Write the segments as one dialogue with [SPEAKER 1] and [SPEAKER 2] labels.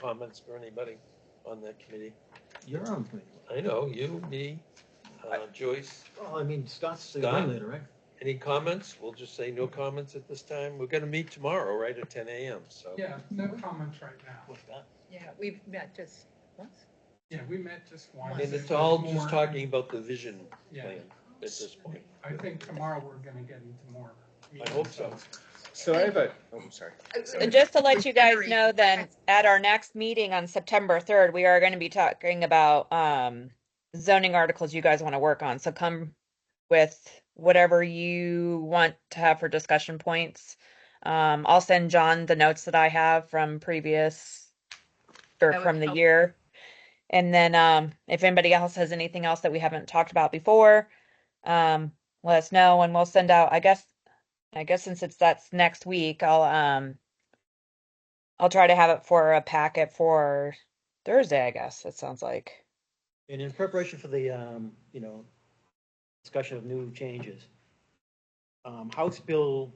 [SPEAKER 1] comments for anybody on that committee?
[SPEAKER 2] You're on the committee.
[SPEAKER 1] I know, you, me, uh, Joyce,
[SPEAKER 2] Well, I mean, Scott's the
[SPEAKER 1] Scott?
[SPEAKER 2] later, right?
[SPEAKER 1] any comments? We'll just say no comments at this time. We're gonna meet tomorrow, right, at ten AM, so.
[SPEAKER 3] Yeah, no comments right now.
[SPEAKER 4] Yeah, we've met just once.
[SPEAKER 3] Yeah, we met just once.
[SPEAKER 1] And
[SPEAKER 3] It
[SPEAKER 1] it's all
[SPEAKER 3] was
[SPEAKER 1] just
[SPEAKER 3] more-
[SPEAKER 1] talking about the vision
[SPEAKER 3] Yeah.
[SPEAKER 1] plan at this point.
[SPEAKER 3] I think tomorrow we're gonna get into more.
[SPEAKER 1] I hope so.
[SPEAKER 5] So I have a, oh, I'm sorry.
[SPEAKER 6] And just to let you guys
[SPEAKER 4] Very-
[SPEAKER 6] know then, at our next meeting on September third, we are gonna be talking about, um, zoning articles you guys wanna work on, so come with whatever you want to have for discussion points. Um, I'll send John the notes that I have from previous, or
[SPEAKER 4] That would
[SPEAKER 6] from the
[SPEAKER 4] help.
[SPEAKER 6] year. And then, um, if anybody else has anything else that we haven't talked about before, um, let us know and we'll send out, I guess, I guess since it's, that's next week, I'll, um, I'll try to have it for a packet for Thursday, I guess, it sounds like.
[SPEAKER 2] And in preparation for the, um, you know, discussion of new changes, um, House Bill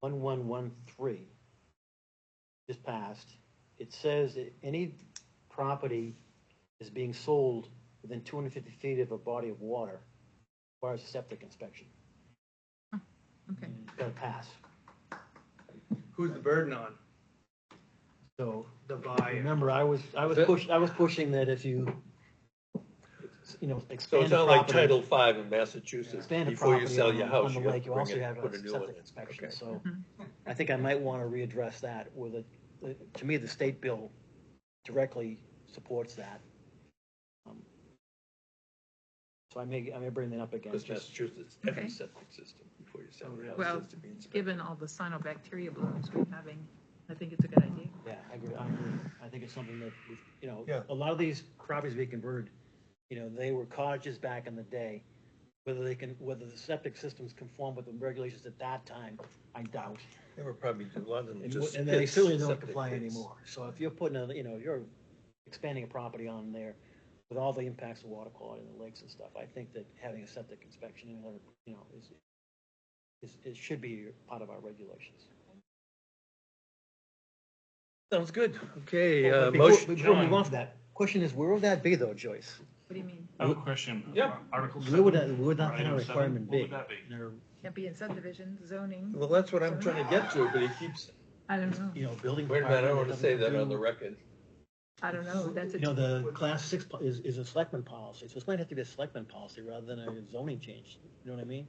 [SPEAKER 2] one one one three just passed. It says that any property is being sold within two hundred fifty feet of a body of water requires a septic inspection.
[SPEAKER 4] Okay.
[SPEAKER 2] It's gotta pass.
[SPEAKER 7] Who's the burden on?
[SPEAKER 2] So
[SPEAKER 7] The buyer.
[SPEAKER 2] remember, I was, I was
[SPEAKER 1] Is it-
[SPEAKER 2] push, I was pushing that if you, you know,
[SPEAKER 1] So
[SPEAKER 2] expand
[SPEAKER 1] it's
[SPEAKER 2] the
[SPEAKER 1] not like
[SPEAKER 2] property.
[SPEAKER 1] Title V in Massachusetts,
[SPEAKER 2] expand the
[SPEAKER 1] before you
[SPEAKER 2] property
[SPEAKER 1] sell
[SPEAKER 2] on-
[SPEAKER 1] your
[SPEAKER 2] on
[SPEAKER 1] house,
[SPEAKER 2] the
[SPEAKER 1] you gotta
[SPEAKER 2] lake, you
[SPEAKER 1] bring
[SPEAKER 2] also
[SPEAKER 1] it,
[SPEAKER 2] have
[SPEAKER 1] put a new one
[SPEAKER 2] septic
[SPEAKER 1] in.
[SPEAKER 2] inspection,
[SPEAKER 1] Okay.
[SPEAKER 2] So
[SPEAKER 4] Mhm.
[SPEAKER 2] I think I might want to readdress that with a, the- to me, the state bill directly supports that. Um, So I may, I may bring that up again.
[SPEAKER 1] Because
[SPEAKER 2] just- Oh,
[SPEAKER 1] Massachusetts, every
[SPEAKER 4] Okay.
[SPEAKER 1] septic system before you sell your
[SPEAKER 4] Well,
[SPEAKER 1] house has to be inspected.
[SPEAKER 4] Given all the cyanobacteria blooms we're having, I think it's a good idea.
[SPEAKER 2] Yeah, I agree, I agree. I think it's something that, we- you know,
[SPEAKER 5] Yeah.
[SPEAKER 2] a lot of these properties we converted, you know, they were cottages back in the day. Whether they can, whether the septic systems conform with the regulations at that time, I doubt.
[SPEAKER 1] They were probably, a lot of them
[SPEAKER 2] And
[SPEAKER 1] just.
[SPEAKER 2] w- and they
[SPEAKER 1] pits,
[SPEAKER 2] certainly don't
[SPEAKER 1] septic
[SPEAKER 2] comply
[SPEAKER 1] pits.
[SPEAKER 2] anymore. So if you're putting a, you know, you're expanding a property on there with all the impacts of water quality and the lakes and stuff, I think that having a septic inspection and other, you know, is, is, it should be part of our regulations.
[SPEAKER 1] Sounds good, okay,
[SPEAKER 2] Well,
[SPEAKER 1] uh,
[SPEAKER 2] but before-
[SPEAKER 1] motion,
[SPEAKER 2] Before we move
[SPEAKER 1] John.
[SPEAKER 2] on from that, question is, where would that be though, Joyce?
[SPEAKER 4] What do you mean?
[SPEAKER 8] I have a question.
[SPEAKER 1] Yeah.
[SPEAKER 8] Article
[SPEAKER 2] Where would that,
[SPEAKER 8] seven,
[SPEAKER 2] where would
[SPEAKER 8] or
[SPEAKER 2] that kind
[SPEAKER 8] item
[SPEAKER 2] of
[SPEAKER 8] seven,
[SPEAKER 2] requirement
[SPEAKER 8] What
[SPEAKER 2] be?
[SPEAKER 8] would that be?
[SPEAKER 2] There-
[SPEAKER 4] Can't be in subdivision, zoning,
[SPEAKER 1] Well, that's what I'm trying to get to, but he keeps,
[SPEAKER 4] I don't know,
[SPEAKER 2] You know, building.
[SPEAKER 1] wait a minute, I don't
[SPEAKER 2] department,
[SPEAKER 1] wanna say that on the
[SPEAKER 2] nothing
[SPEAKER 1] record.
[SPEAKER 4] I don't know, that's
[SPEAKER 2] to
[SPEAKER 4] a.
[SPEAKER 2] do. You know, the class six po- is, is a selectman policy, so it's gonna have to be a selectman policy rather than a zoning change, you know what I mean?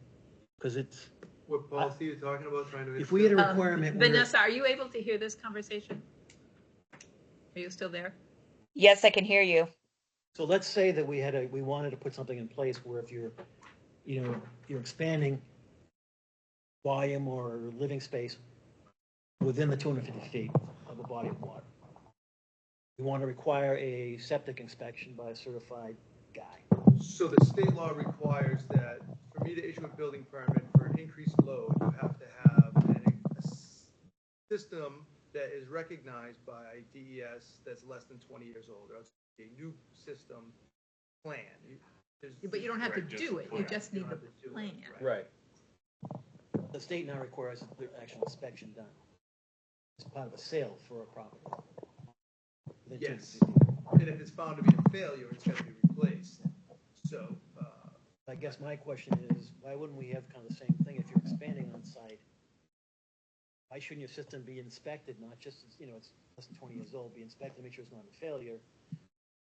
[SPEAKER 2] Cause it's,
[SPEAKER 7] What policy are you talking about trying to?
[SPEAKER 2] if we had a
[SPEAKER 4] Um,
[SPEAKER 2] requirement. where-
[SPEAKER 4] Vanessa, are you able to hear this conversation? Are you still there?
[SPEAKER 6] Yes, I can hear you.
[SPEAKER 2] So let's say that we had a, we wanted to put something in place where if you're, you know, you're expanding volume or living space within the two hundred fifty feet of a body of water. We want to require a septic inspection by a certified guy.
[SPEAKER 7] So the state law requires that for me to issue a building permit for an increased load, you have to have an, a s- system that is recognized by DES that's less than twenty years old, or else it's a new system plan. You- there's-
[SPEAKER 4] But you don't have to
[SPEAKER 8] Right, just
[SPEAKER 4] do it, you
[SPEAKER 8] plan.
[SPEAKER 4] just
[SPEAKER 7] you
[SPEAKER 4] need
[SPEAKER 7] don't
[SPEAKER 4] the
[SPEAKER 7] have to do it,
[SPEAKER 4] plan.
[SPEAKER 1] Right.
[SPEAKER 2] The state now requires the actual inspection done. It's part of a sale for a property. Within 250
[SPEAKER 7] Yes,
[SPEAKER 2] feet.
[SPEAKER 7] and if it's found to be a failure, it's gotta be replaced. So, uh,
[SPEAKER 2] I guess my question is, why wouldn't we have kind of the same thing if you're expanding on site? Why shouldn't your system be inspected, not just, you know, it's less than twenty years old, be inspected, make sure it's not a failure?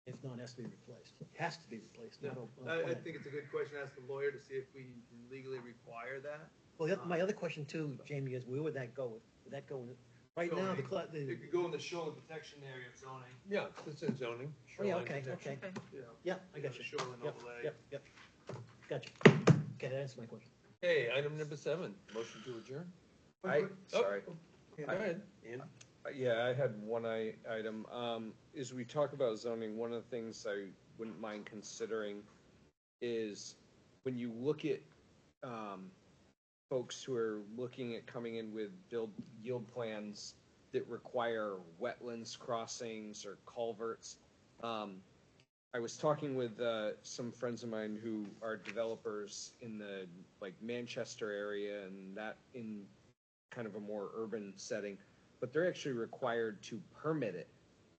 [SPEAKER 2] If not, it has to be replaced. It has to be replaced.
[SPEAKER 7] Yeah,
[SPEAKER 2] not a- not a
[SPEAKER 7] I, I
[SPEAKER 2] plan.
[SPEAKER 7] think it's a good question to ask the lawyer to see if we can legally require that.
[SPEAKER 2] Well, the-
[SPEAKER 7] uh,
[SPEAKER 2] my other question too, Jamie, is where would that go? Would that go, in- right now, the, cla-
[SPEAKER 7] It
[SPEAKER 2] the,
[SPEAKER 7] could go in the shoreline protection area of zoning,
[SPEAKER 1] Yeah, it's in zoning.
[SPEAKER 2] oh, yeah,
[SPEAKER 1] shoreline
[SPEAKER 2] okay,
[SPEAKER 1] protection.
[SPEAKER 2] okay,
[SPEAKER 7] you know.
[SPEAKER 2] yeah, I got you.
[SPEAKER 7] Shoreline
[SPEAKER 2] Yep,
[SPEAKER 7] overlay.
[SPEAKER 2] yep, yep. Gotcha. Okay, that answers my question.
[SPEAKER 1] Okay, item number seven, motion to adjourn.
[SPEAKER 5] I,
[SPEAKER 1] Oh,
[SPEAKER 5] sorry.
[SPEAKER 1] Go ahead, Ian.
[SPEAKER 5] Yeah, I had one i- item. Um, as we talk about zoning, one of the things I wouldn't mind considering is when you look at, um, folks who are looking at coming in with build yield plans that require wetlands crossings or culverts. Um, I was talking with, uh, some friends of mine who are developers in the, like Manchester area and that in kind of a more urban setting but they're actually required to permit it